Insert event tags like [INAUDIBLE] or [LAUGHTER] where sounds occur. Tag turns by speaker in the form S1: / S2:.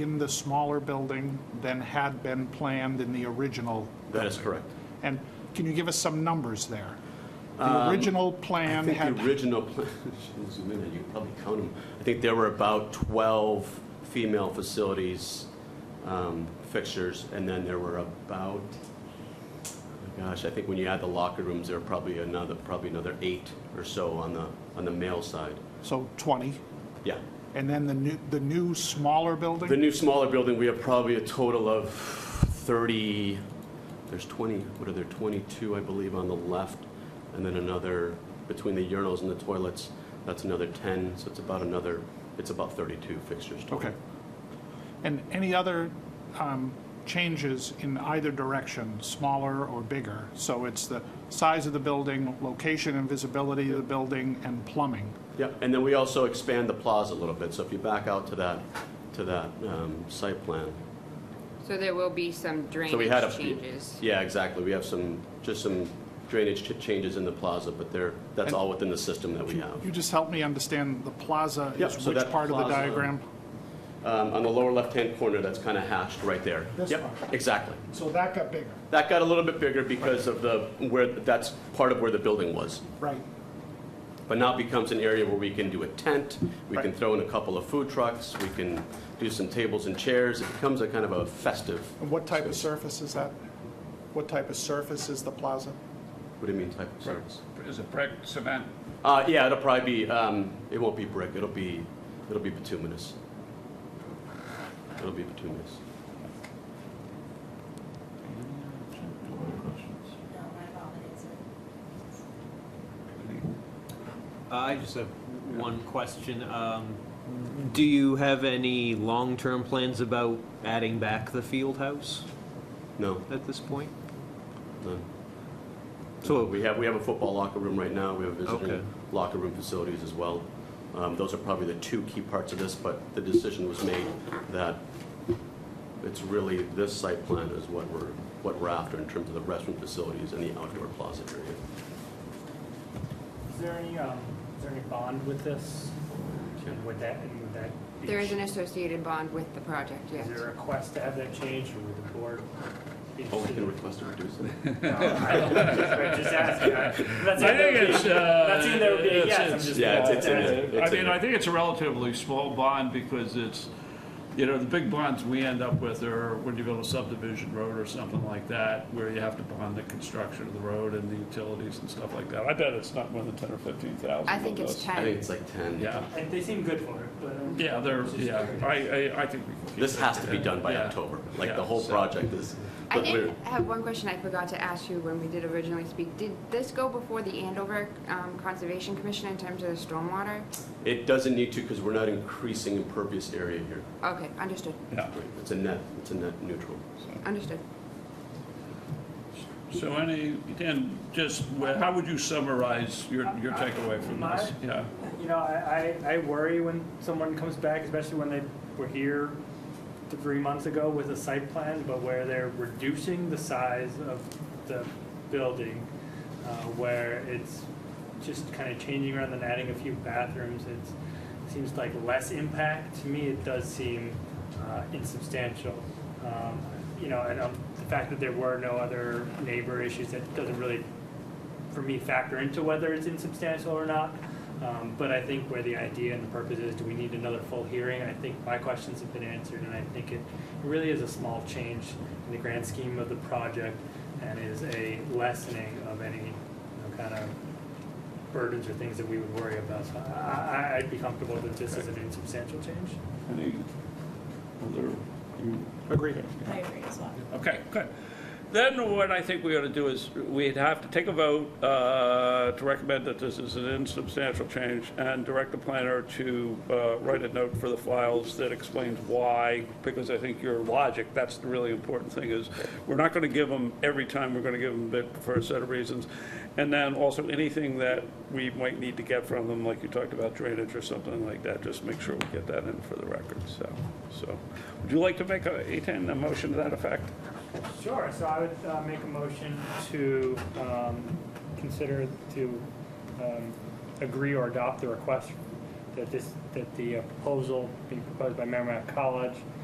S1: in the smaller building than had been planned in the original?
S2: That is
S1: building?
S2: correct.
S1: And can you give us some numbers there? The original
S2: Um, I
S1: plan
S2: think
S1: had...
S2: the original, [LAUGHS] plan- zoom in, you can probably count them. I think there were about 12 female facilities um, fixtures, and then there were about, oh gosh, I think when you add the locker rooms, there were probably another, probably another eight or so on the, on the male side.
S1: So 20,
S2: Yeah.
S1: and then the new, the new smaller building?
S2: The new smaller building, we have probably a total of 30, there's 20, what are there, 22, I believe, on the left, and then another, between the urinals and the toilets, that's another 10, so it's about another, it's about 32 fixtures total.
S1: Okay. And any other um, changes in either direction, smaller or bigger? So it's the size of the building, location and visibility of the building, and plumbing.
S2: Yeah, and then we also expand the plaza a little bit, so if you back out to that, to that um, site plan.
S3: So there will be some
S2: So we had a
S3: drainage changes.
S2: Yeah, exactly, we have some, just some drainage ch- changes in the plaza, but they're, that's
S1: And-
S2: all within the system that we have.
S1: You just help me understand the plaza
S2: Yep,
S1: is
S2: so
S1: which
S2: that
S1: part of the
S2: plaza-
S1: diagram?
S2: Um, On the lower left-hand corner, that's kind of hashed right there.
S1: This
S2: Yep,
S1: one.
S2: Exactly.
S1: So that got bigger,
S2: That got a little bit bigger because of the, where, that's part of where the building was.
S1: right?
S2: But now becomes an area where we can do a tent, we can
S1: Right.
S2: throw in a couple of food trucks, we can do some tables and chairs. It becomes a kind of a festive.
S1: And what type of surface is that? What type of surface is the plaza?
S2: What do you mean type of service?
S4: Is it brick, cement?
S2: Uh, yeah, it'll probably be, um, it won't be brick, it'll be, it'll be bituminous. It'll be bituminous.
S5: No, my validates it.
S6: I just have one question. Um, do you have any long-term plans about adding back the field house
S2: No,
S6: at this point?
S2: none.
S6: So-
S2: We have, we have a football locker room right now, we have
S6: Okay.
S2: visiting locker room facilities as well. Um, Those are probably the two key parts of this, but the decision was made that it's really this site plan is what we're, what we're after in terms of the restroom facilities and the outdoor plaza area.
S7: Is there any, um, is there any bond with this? And would that, and would that be?
S3: There is an associated bond with the project, yes.
S7: Is there a request to have that changed, or would the board? be
S2: Oh, we
S7: interested?
S2: can request a reduce it.
S7: No, I don't- I'm Just asking.
S2: [LAUGHS]
S7: I- that's
S4: I think
S7: either-
S4: it's, uh.
S7: That's either would be a
S4: it's-
S7: yes, I'm
S4: it's-
S7: just.
S2: Yeah, it's- it's in
S7: that's-
S2: it.
S4: I
S2: It's in
S4: mean,
S2: it.
S4: I think it's a relatively small bond because it's, you know, the big bonds we end up with are when you build a subdivision road or something like that, where you have to bond the construction of the road and the utilities and stuff like that. I bet it's not more than ten or fifteen thousand.
S3: I think
S2: [LAUGHS]
S3: it's
S2: I think
S3: 10.
S2: it's like 10.
S4: Yeah,
S7: And they seem good for it, but. um,
S4: yeah, they're,
S7: it's just
S4: yeah, I, I, I think we can keep
S2: This
S4: it
S2: has
S4: at
S2: to be
S4: 10.
S2: done by
S4: Yeah.
S2: October, like the
S4: Yeah,
S2: whole
S4: so-
S2: project is.
S3: I
S2: but we're-
S3: did have one question I forgot to ask you when we did originally speak. Did this go before the Andover um, Conservation Commission in terms of the stormwater?
S2: It doesn't need to because we're not increasing impervious area here.
S3: Okay, understood,
S4: Yeah.
S2: It's a net, it's a net neutral.
S3: understood.
S4: So any, Dan, just, wh- how would you summarize your, your takeaway from this? Yeah,
S7: You know, I, I, I worry when someone comes back, especially when they were here th- three months ago with a site plan, but where they're reducing the size of the building, uh, where it's just kind of changing around and adding a few bathrooms, it's, seems like less impact. To me, it does seem, uh, insubstantial. Um, you know, and, um, the fact that there were no other neighbor issues, that doesn't really for me factor into whether it's insubstantial or not. Um, but I think where the idea and the purpose is, do we need another full hearing? I think my questions have been answered, and I think it really is a small change in the grand scheme of the project, and is a lessening of any you know, kind of burdens or things that we would worry about. So I, I, I'd be comfortable that this is an insubstantial change.
S4: any other, you
S1: Agreed.
S5: I agree as well.
S4: Okay, good. Then what I think we ought to do is, we'd have to take a vote uh, to recommend that this is an insubstantial change and direct the planner to uh, write a note for the files that explains why, because I think your logic, that's the really important thing, is we're not going to give them every time, we're going to give them bit for a set of reasons. And then also anything that we might need to get from them, like you talked about drainage or something like that, just make sure we get that in for the record, so. So, would you like to make a, Ethan, a motion to that effect?
S7: Sure, so I would uh, make a motion to um, consider to um, agree uh, or adopt the request that this, that the proposal be proposed by Merrimack College uh,